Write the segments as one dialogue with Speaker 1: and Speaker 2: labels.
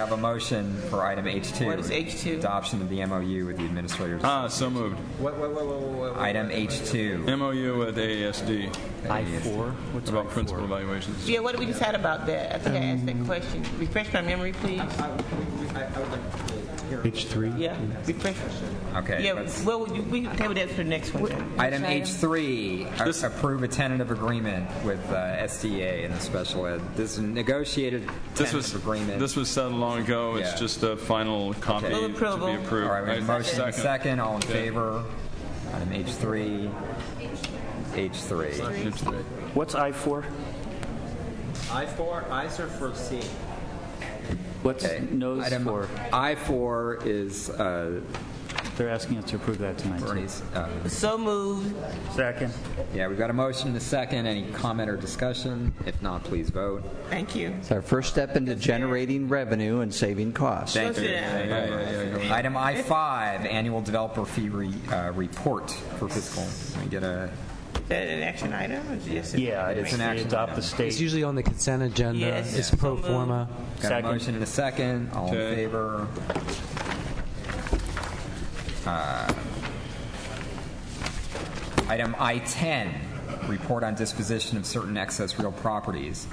Speaker 1: have a motion for item H2.
Speaker 2: What is H2?
Speaker 1: Adoption of the MOU with the administrators.
Speaker 3: Ah, so moved.
Speaker 4: Wait, wait, wait, wait, wait, wait.
Speaker 1: Item H2.
Speaker 3: MOU with E AASD
Speaker 5: I-4? What's
Speaker 3: about
Speaker 5: I-4?
Speaker 3: principal evaluations.
Speaker 2: Yeah, what did we decide about that? I think I asked that question. Refresh my memory, please.
Speaker 4: I, we- we- I, I would like to hear.
Speaker 5: H3?
Speaker 2: Yeah, refresh.
Speaker 1: Okay.
Speaker 2: Yeah,
Speaker 1: let's-
Speaker 2: well, we we can table that for the next one then.
Speaker 1: Item
Speaker 6: item?
Speaker 1: H3, a- approve a tentative agreement with uh, SDA and the special ed. This is a negotiated
Speaker 3: This was,
Speaker 1: tentative agreement.
Speaker 3: this was settled long ago.
Speaker 1: Yeah.
Speaker 3: It's just a final copy
Speaker 2: Move
Speaker 3: to be
Speaker 2: approval.
Speaker 3: approved.
Speaker 1: All right, we have a
Speaker 3: Right,
Speaker 1: motion and a
Speaker 3: second.
Speaker 1: second. All in favor? Item H3. H3.
Speaker 5: What's I-4?
Speaker 4: I four, I's are for C.
Speaker 5: What's
Speaker 1: Okay.
Speaker 5: nose
Speaker 1: Item
Speaker 5: 4?
Speaker 1: I4 is uh,
Speaker 5: They're asking us to approve that tonight. too.
Speaker 1: Bernie's. uh,
Speaker 2: So moved.
Speaker 5: Second.
Speaker 1: Yeah, we've got a motion and a second. Any comment or discussion? If not, please vote.
Speaker 2: Thank you.
Speaker 7: It's our first step into generating revenue and saving costs.
Speaker 1: Thank
Speaker 2: Let's
Speaker 1: you.
Speaker 2: do that.
Speaker 1: Thank you. Item I5, annual developer fee re- uh, report for fiscal. Can we get a,
Speaker 2: Is that an action item? or just a-
Speaker 5: Yeah,
Speaker 1: It is
Speaker 5: it's
Speaker 1: an
Speaker 5: they
Speaker 1: action
Speaker 5: adopt
Speaker 1: item.
Speaker 5: the
Speaker 8: It's
Speaker 5: state.
Speaker 8: usually on the consent agenda.
Speaker 2: Yes.
Speaker 8: It's
Speaker 2: Yeah.
Speaker 8: pro forma.
Speaker 1: got a
Speaker 5: Second.
Speaker 1: motion and a second. All in
Speaker 3: Okay.
Speaker 1: favor? Uh, Item I10, report on disposition of certain excess real properties.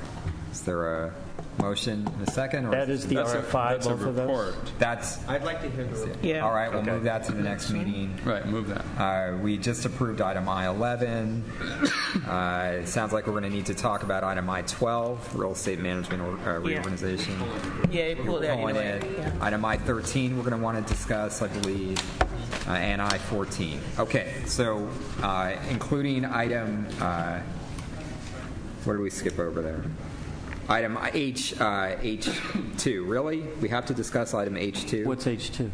Speaker 1: Is there a motion and a second? or-
Speaker 5: That is the
Speaker 3: That's a-
Speaker 5: RFI,
Speaker 3: that's a
Speaker 5: both of those?
Speaker 3: report.
Speaker 1: That's,
Speaker 4: I'd like to hear the.
Speaker 2: Yeah.
Speaker 1: all right, we'll
Speaker 5: Okay.
Speaker 1: move that to the next meeting.
Speaker 3: Right, move that.
Speaker 1: Uh, We just approved item I-11. Uh, It sounds like we're going to need to talk about item I-12, real estate management or- uh,
Speaker 2: Yeah.
Speaker 1: reorganization.
Speaker 2: Yeah, pull that
Speaker 1: Calling
Speaker 2: anyway.
Speaker 1: it. Item I-13, we're going to want to discuss, I believe, uh, and I-14. Okay, so uh, including item, uh, what did we skip over there? Item H, uh, H2, really? We have to discuss item H2?
Speaker 5: What's H2?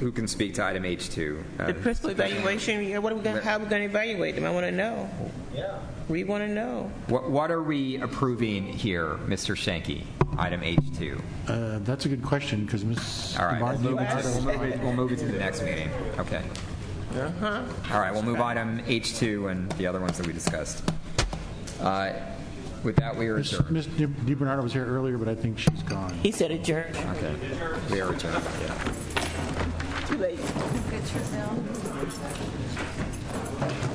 Speaker 1: Who can speak to item H2? Uh,
Speaker 2: The principal evaluation, yeah, what are we gonna, how are we gonna evaluate them? I wanna know.
Speaker 4: Yeah.
Speaker 2: We wanna know.
Speaker 1: What, what are we approving here, Mr. Shanky? Item H2.
Speaker 9: Uh, That's a good question, because Ms.
Speaker 1: All right, we'll move it
Speaker 9: Barnes-
Speaker 1: to, we'll move it, we'll move it to the next meeting. Okay. All right, we'll move item H2 and the other ones that we discussed. Uh, With that, we are
Speaker 9: Ms.
Speaker 1: adjourned.
Speaker 9: Ms. Di- DiBernardo was here earlier, but I think she's gone.
Speaker 2: He said adjourned.
Speaker 1: Okay. We are adjourned.
Speaker 2: Too late.
Speaker 6: Get your bill.